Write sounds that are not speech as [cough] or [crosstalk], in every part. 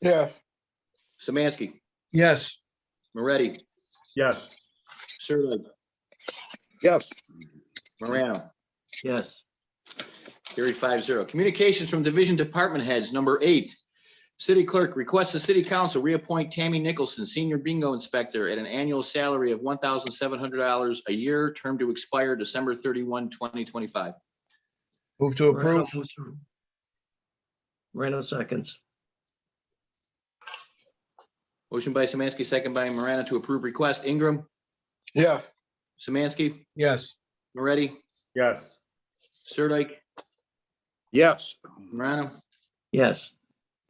yes, Samansky, Yes. Moretti, Yes. Sirlik, Yes. Morano. Yes. Carried five zero. Communications from division department heads, number eight. City clerk requests the city council reappoint Tammy Nicholson, senior bingo inspector, at an annual salary of one thousand seven hundred dollars a year, term to expire December 31, 2025. Move to approve. Moreno seconds. Motion by Samansky, second by Morano to approve request. Ingram, yes, Samansky, Yes. Moretti, Yes. Sirdike, Yes. Morano. Yes,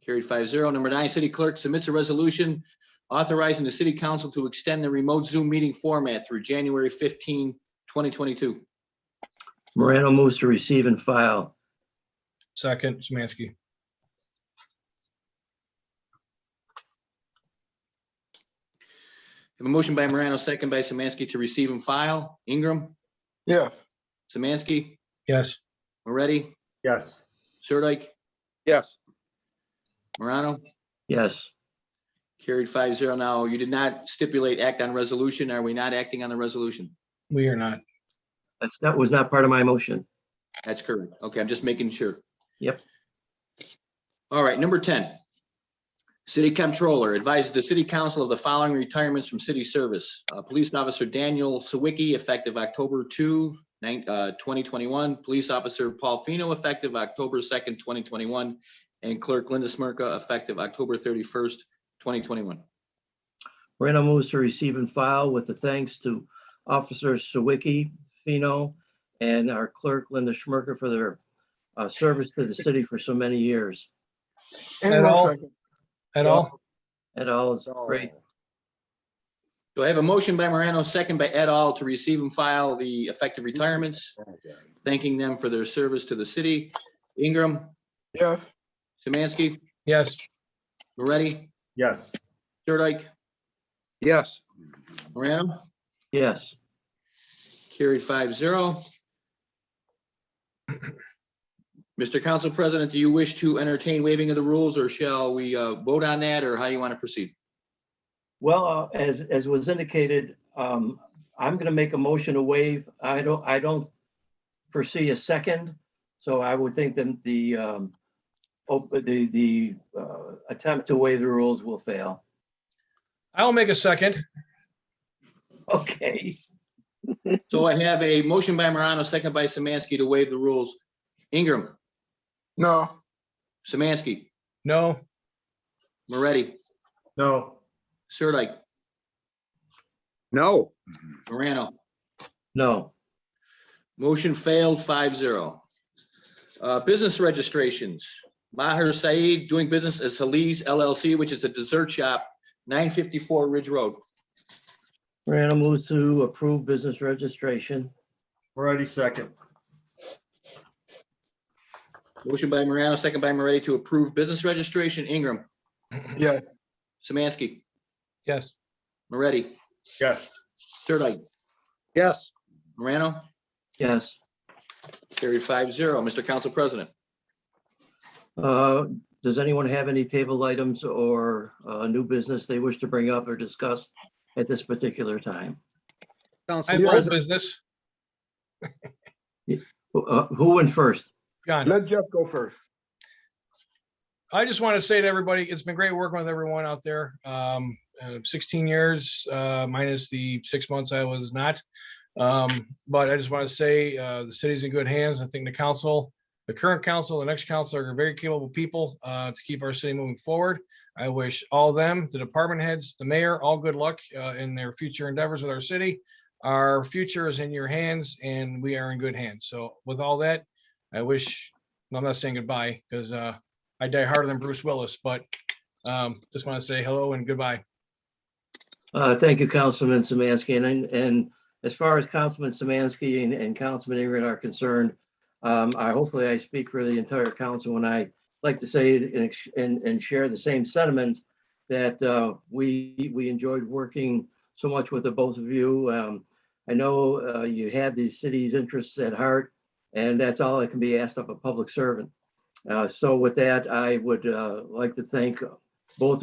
Carried five zero. Number nine, city clerk submits a resolution authorizing the city council to extend the remote Zoom meeting format through January 15, 2022. Moreno moves to receive and file. Second, Samansky. Have a motion by Morano, second by Samansky to receive and file. Ingram, yes, Samansky, Yes. Moretti, Yes. Sirdike, Yes. Morano. Yes, Carried five zero. Now, you did not stipulate act on resolution. Are we not acting on the resolution? We are not. that's, that was not part of my motion. That's correct. Okay, I'm just making sure. Yep. All right, number ten. City Comptroller advises the city council of the following retirements from city service. Uh, Police Officer Daniel Sawicki, effective October 2, nine- uh, 2021. Police Officer Paul Fino, effective October second, twenty twenty-one. And Clerk Linda Smirka, effective October thirty-first, twenty twenty-one. Moreno moves to receive and file with the thanks to Officers Sawicki, Fino, and our clerk Linda Schmerker for their uh, service to the city for so many years. And all- Ingram, second. At all? That all is great. So I have a motion by Morano, second by et al. to receive and file the effective retirements, thanking them for their service to the city. Ingram, yes, Samansky, Yes. Moretti, Yes. Sirdike, Yes. Morano, Yes, carried five zero. Mr. Council President, do you wish to entertain waiving of the rules or shall we uh, vote on that or how you want to proceed? well, uh, as, as was indicated, um, I'm going to make a motion to waive. I don't, I don't foresee a second, so I would think then the, um, op- the, the uh, attempt to waive the rules will fail. [laughs] I'll make a second. Okay, So I have a motion by Morano, second by Samansky to waive the rules. Ingram, no, Samansky, No. Moretti, No. Sirdike, No. Morano. no, Motion failed 5-0. Uh, business registrations. Maher Saeed doing business as Halise LLC, which is a dessert shop, nine fifty-four Ridge Road. Morano moves to approve business registration. Moretti second. Motion by Morano, second by Moretti to approve business registration. Ingram, yes, Samansky, Yes. Moretti, Yes. Sirdike, Yes. Morano, Yes, carried 5-0. Mr. Council President, Uh, does anyone have any table items or uh, new business they wish to bring up or discuss at this particular time? Council I have old President, business. Who uh, who went first? John. let Jeff go first. I just want to say to everybody, it's been great working with everyone out there. Um, uh, 16 years uh, minus the six months I was not. Um, but I just want to say uh, the city's in good hands. I think the council, the current council, the next council are very capable people uh, to keep our city moving forward. I wish all of them, the department heads, the mayor, all good luck uh, in their future endeavors with our city. Our future is in your hands and we are in good hands. So with all that, I wish, I'm not saying goodbye because uh, I die harder than Bruce Willis, but um, just want to say hello and goodbye. Uh, Thank you, Councilman Samansky. And, and as far as Councilman Samansky and- and Councilman Ingram are concerned, um, I, hopefully I speak for the entire council when I like to say and, ex- and, and share the same sentiments that uh, we, we enjoyed working so much with the both of you. Um, I know uh, you had the city's interests at heart, and that's all that can be asked of a public servant. Uh, So with that, I would uh, like to thank both